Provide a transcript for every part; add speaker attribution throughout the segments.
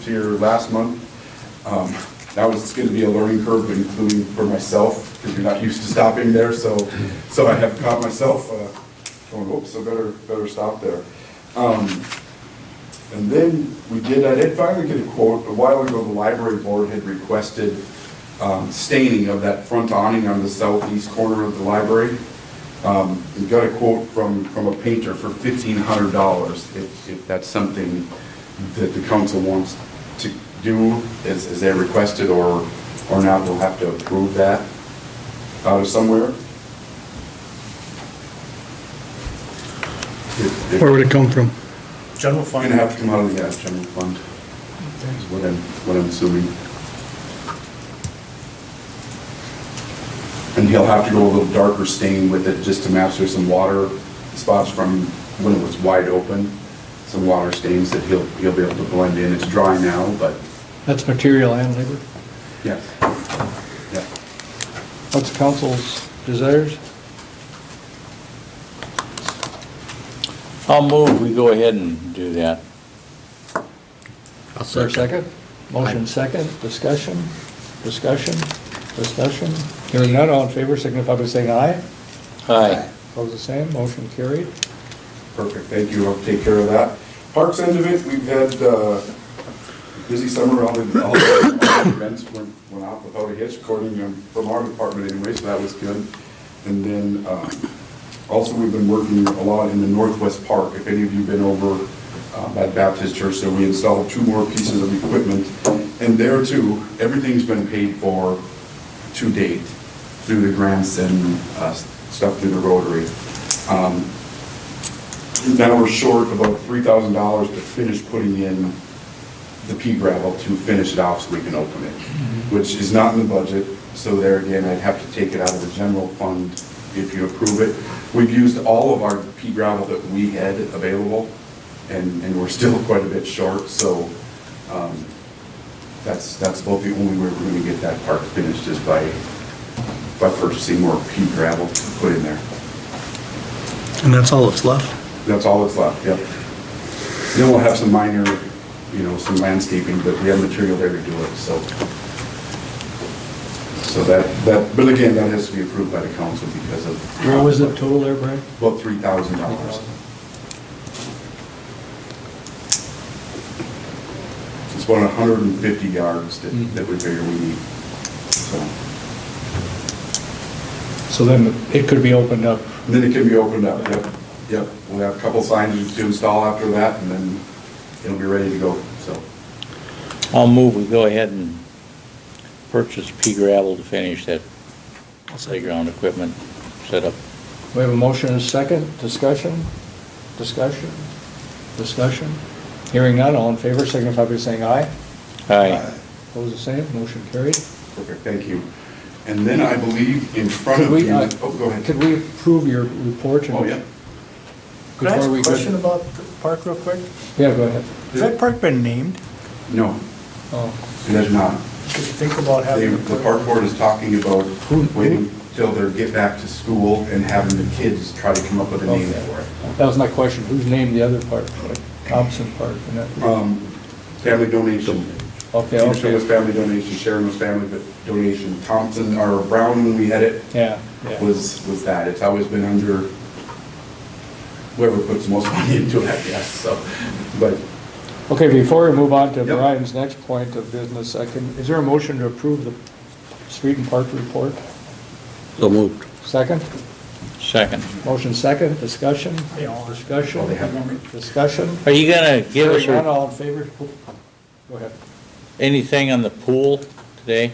Speaker 1: was here last month. Um, That was going to be a learning curve, including for myself, because you're not used to stopping there, so, so I have caught myself uh, going, oops, I better, better stop there. Um, And then we did, I did finally get a quote, a while ago, the library board had requested um, staining of that front awning on the southeast corner of the library. Um, We got a quote from, from a painter for fifteen hundred dollars, if, if that's something that the council wants to do, as, as they requested, or, or not, we'll have to approve that out of somewhere. If- if-
Speaker 2: Where would it come from?
Speaker 3: General
Speaker 1: I'm
Speaker 3: fund,
Speaker 1: gonna have to come out of the gas general fund, is what I'm, what I'm assuming. And he'll have to go a little darker stain with it, just to match, there's some water spots from when it was wide open, some water stains that he'll, he'll be able to blend in, it's dry now, but,
Speaker 2: That's material and labor.
Speaker 1: yes. Yeah.
Speaker 2: What's council's desires?
Speaker 4: I'll move, we go ahead and do that.
Speaker 3: I'll
Speaker 2: Is there a
Speaker 3: second.
Speaker 2: second? Motion second, discussion, discussion, discussion. Hearing none, all in favor, signify by saying aye.
Speaker 4: Aye.
Speaker 2: Opposed, the same, motion carried.
Speaker 1: Perfect, thank you, I'll take care of that. Parks end of it, we've had uh, busy summer, all the, all the events went, went off without a hitch, according to, from our department anyway, so that was good. And then, um, also, we've been working a lot in the Northwest Park, if any of you've been over uh, by Baptist Church, so we installed two more pieces of equipment. And there too, everything's been paid for to date through the grants and uh, stuff through the Rotary. Um, now we're short about three thousand dollars to finish putting in the pea gravel to finish it off so we can open it, which is not in the budget, so there again, I'd have to take it out of the general fund if you approve it. We've used all of our pea gravel that we had available, and, and we're still quite a bit short, so, um, that's, that's about the only way we're gonna get that park finished is by, by purchasing more pea gravel to put in there.
Speaker 3: And that's all that's left?
Speaker 1: That's all that's left, yep. Then we'll have some minor, you know, some landscaping, but we have material there to do it, so. So that, that, but again, that has to be approved by the council because of.
Speaker 2: Where was it total there, Brian?
Speaker 1: About three thousand dollars. It's about hundred and fifty yards that,
Speaker 2: Mm-hmm.
Speaker 1: that we figure we need, so.
Speaker 2: So then it could be opened up.
Speaker 1: And then it can be opened up, yep, yep. We'll have a couple signs to install after that, and then it'll be ready to go, so.
Speaker 4: I'll move, we go ahead and purchase pea gravel to finish that playground equipment setup.
Speaker 2: We have a motion and a second, discussion, discussion, discussion. Hearing none, all in favor, signify by saying aye.
Speaker 4: Aye.
Speaker 2: Opposed, the same, motion carried.
Speaker 1: Perfect, thank you. And then I believe in front
Speaker 2: Could
Speaker 1: of
Speaker 2: we,
Speaker 1: you,
Speaker 2: uh,
Speaker 1: oh, go ahead.
Speaker 2: could we approve your report? and-
Speaker 1: Oh, yeah.
Speaker 3: Could I ask
Speaker 2: Before we
Speaker 3: a
Speaker 2: go-
Speaker 3: question about the park real quick?
Speaker 2: Yeah, go ahead.
Speaker 3: Has that park been named?
Speaker 1: No,
Speaker 2: Oh.
Speaker 1: it is not.
Speaker 3: Could you think about
Speaker 1: They-
Speaker 3: having?
Speaker 1: The park board is talking about waiting till they get back to school and having the kids try to come up with a name for it.
Speaker 2: That was my question, who's named the other park, like Thompson Park? and that-
Speaker 1: Um, Family donation.
Speaker 2: Okay,
Speaker 1: Peterson was
Speaker 2: okay,
Speaker 1: family donation, Sharon was family donation, Thompson, or Brown, when we had it,
Speaker 2: yeah, yeah.
Speaker 1: was, was that. It's always been under whoever puts most money into it, I guess, so. But
Speaker 2: Okay, before we move on to
Speaker 1: Yep.
Speaker 2: Brian's next point of business, I can, is there a motion to approve the street and park report?
Speaker 4: So moved.
Speaker 2: Second?
Speaker 4: Second.
Speaker 2: Motion second, discussion?
Speaker 3: Yeah.
Speaker 1: Oh, they have
Speaker 2: Discussion?
Speaker 1: one.
Speaker 2: Discussion?
Speaker 4: Are you gonna give us
Speaker 2: Hearing none,
Speaker 4: your-
Speaker 2: all in favor? Go ahead.
Speaker 4: anything on the pool today?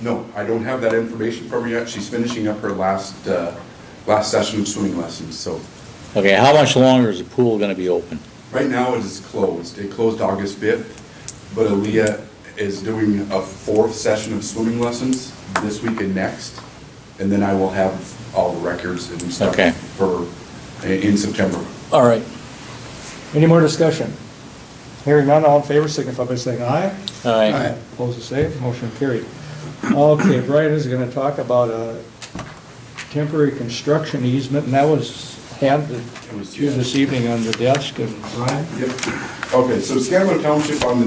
Speaker 1: No, I don't have that information from her yet. She's finishing up her last, uh, last session of swimming lessons, so
Speaker 4: Okay, how much longer is the pool gonna be open?
Speaker 1: right now it is closed. It closed August 5th, but Aaliyah is doing a fourth session of swimming lessons this week and next, and then I will have all the records and stuff
Speaker 4: Okay.
Speaker 1: for, in September.
Speaker 4: All right.
Speaker 2: Any more discussion? Hearing none, all in favor, signify by saying aye.
Speaker 4: Aye.
Speaker 2: Opposed, the same, motion carried. Okay, Brian is gonna talk about a temporary construction easement, and that was handed
Speaker 1: It was-
Speaker 2: to you this evening on the desk, and Brian?
Speaker 1: Yep. Okay, so Scanlon Township on the